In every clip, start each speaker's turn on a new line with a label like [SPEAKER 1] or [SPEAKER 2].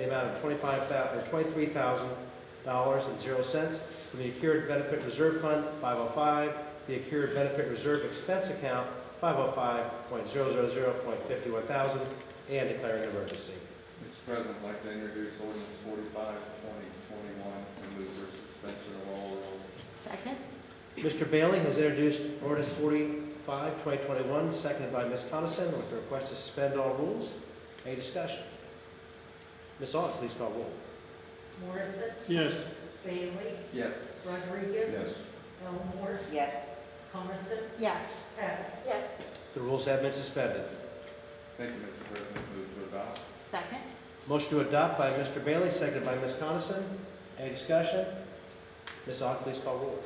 [SPEAKER 1] amount of twenty-five thousand, or twenty-three thousand dollars and zero cents from the Accrued Benefit Reserve Fund, five oh five, the Accrued Benefit Reserve Expense Account, five oh five point zero zero zero point fifty-one thousand, and declaring an emergency.
[SPEAKER 2] Mr. President, I'd like to introduce ordinance forty-five, twenty twenty-one, to move for suspension of all rules.
[SPEAKER 3] Second?
[SPEAKER 1] Mr. Bailey has introduced ordinance 45, 2021, seconded by Ms. Coniston, with a request to suspend all rules. Any discussion? Ms. Aug, please call roll.
[SPEAKER 4] Morrison,
[SPEAKER 5] yes,
[SPEAKER 4] Bailey,
[SPEAKER 2] Yes.
[SPEAKER 4] Rodriguez. Elmore,
[SPEAKER 6] yes,
[SPEAKER 4] Coniston,
[SPEAKER 3] Yes.
[SPEAKER 4] Heck.
[SPEAKER 6] yes,
[SPEAKER 1] The rules have been suspended.
[SPEAKER 2] Thank you, Mr. President. Move to adopt.
[SPEAKER 3] Second?
[SPEAKER 1] Motion to adopt by Mr. Bailey, seconded by Ms. Coniston. Any discussion? Ms. Aug, please call roll.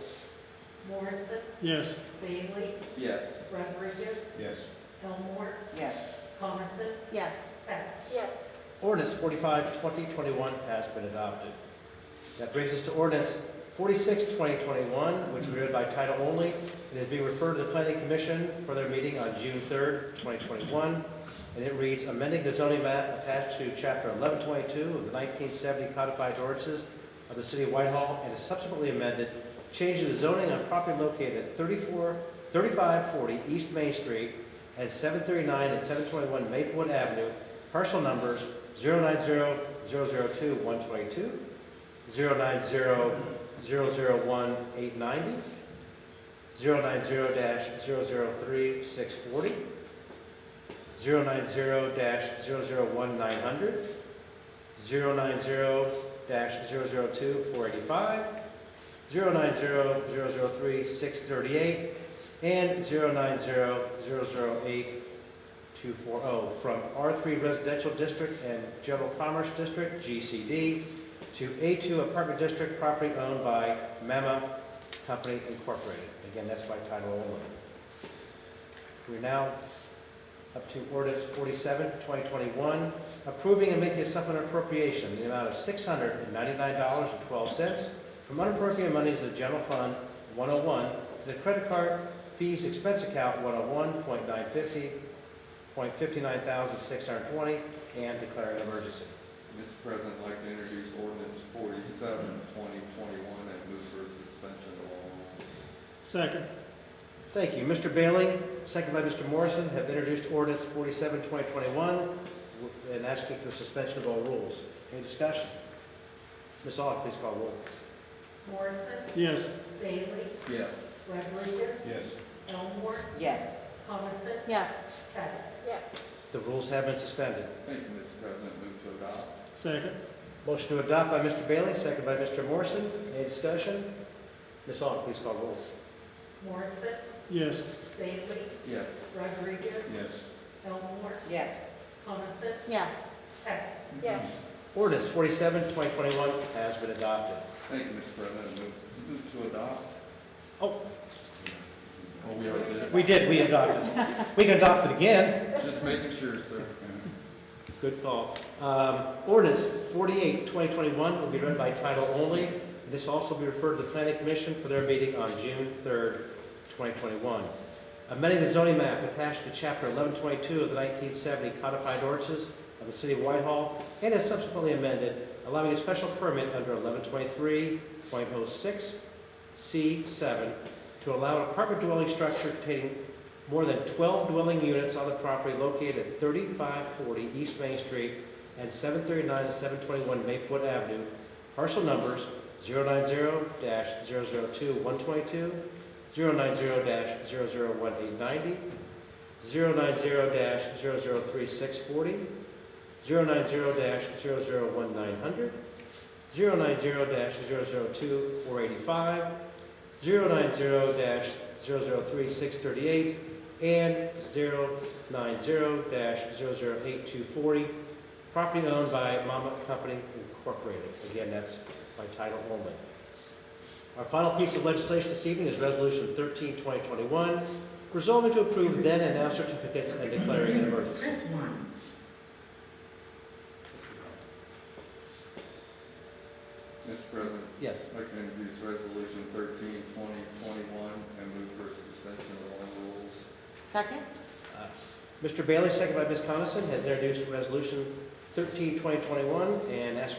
[SPEAKER 4] Morrison,
[SPEAKER 5] yes,
[SPEAKER 4] Bailey,
[SPEAKER 2] Yes.
[SPEAKER 4] Rodriguez,
[SPEAKER 1] Yes.
[SPEAKER 4] Elmore,
[SPEAKER 6] yes,
[SPEAKER 4] Coniston,
[SPEAKER 3] Yes.
[SPEAKER 4] Heck.
[SPEAKER 6] yes.
[SPEAKER 1] Ordinance 45, 2021 has been adopted. That brings us to ordinance 46, 2021, which we read by title only, and is being referred to the planning commission for their meeting on June 3rd, 2021. And it reads, amending the zoning map attached to chapter 1122 of the 1970 codified ordinances of the city of Whitehall and is subsequently amended, changing the zoning on property located at 34, 3540 East Main Street and 739 and 721 Maplewood Avenue, parcel numbers 090-002-122, 090-001-890, 090-003-640, 090-001-900, 090-002-485, 090-003-638, and 090-008 240 oh, from R3 Residential District and General Commerce District, GCD, to A2 Apartment District, property owned by Mama Company Incorporated. Again, that's by title only. We're now up to ordinance 47, 2021, approving and making a supplemental appropriation in the amount of $699.12 from unappropriated monies of the General Fund 101 to the credit card fees expense account 101.950 point fifty-nine thousand six hundred twenty, and declaring an emergency.
[SPEAKER 2] Mr. President, I'd like to introduce ordinance forty-seven, twenty twenty-one, and move for suspension of all rules.
[SPEAKER 5] second,
[SPEAKER 1] Thank you. Mr. Bailey, second by Mr. Morrison, have introduced ordinance 47 2021 and asking for suspension of all rules. Any discussion? Ms. Aug, please call roll.
[SPEAKER 4] Morrison,
[SPEAKER 5] yes,
[SPEAKER 4] Bailey,
[SPEAKER 2] Yes.
[SPEAKER 4] Rodriguez.
[SPEAKER 1] Yes.
[SPEAKER 4] Elmore,
[SPEAKER 6] yes,
[SPEAKER 4] Coniston,
[SPEAKER 3] Yes.
[SPEAKER 4] Heck.
[SPEAKER 6] yes,
[SPEAKER 1] The rules have been suspended.
[SPEAKER 2] Thank you, Mr. President. Move to adopt.
[SPEAKER 5] second,
[SPEAKER 1] Motion to adopt by Mr. Bailey, second by Mr. Morrison. Any discussion? Ms. Aug, please call roll.
[SPEAKER 4] Morrison,
[SPEAKER 5] yes,
[SPEAKER 4] Bailey,
[SPEAKER 2] Yes.
[SPEAKER 4] Rodriguez. Elmore,
[SPEAKER 6] yes,
[SPEAKER 4] Coniston,
[SPEAKER 3] Yes.
[SPEAKER 4] Heck.
[SPEAKER 6] yes,
[SPEAKER 1] Ordinance 47 2021 has been adopted.
[SPEAKER 2] Thank you, Mr. President. Move, move to adopt.
[SPEAKER 1] Oh.
[SPEAKER 2] Oh, we already did.
[SPEAKER 1] We did, we adopted. We can adopt it again.
[SPEAKER 2] Just making sure, sir.
[SPEAKER 1] Good call. Um, Ordinance 48, 2021 will be read by title only. This also will be referred to the planning commission for their meeting on June 3rd, 2021. Amending the zoning map attached to chapter 1122 of the 1970 codified ordinances of the city of Whitehall and is subsequently amended, allowing a special permit under 1123.06 C7 to allow an apartment dwelling structure containing more than 12 dwelling units on the property located at 3540 East Main Street and 739 and 721 Maplewood Avenue, parcel numbers 090-002-122, 090-001-890, 090-003-640, 090-001-900, 090-002-485, 090-003-638, and 090-008240, property owned by Mama Company Incorporated. Again, that's by title only. Our final piece of legislation this evening is Resolution 13, 2021, resolving to approve then and now certificates and declaring an emergency.
[SPEAKER 2] Mr. President,
[SPEAKER 1] Yes.
[SPEAKER 2] I'd like to introduce resolution thirteen, twenty twenty-one, and move for suspension of all rules.
[SPEAKER 3] Second?
[SPEAKER 1] Uh, Mr. Bailey, second by Ms. Coniston, has introduced Resolution thirteen, twenty twenty-one, and ask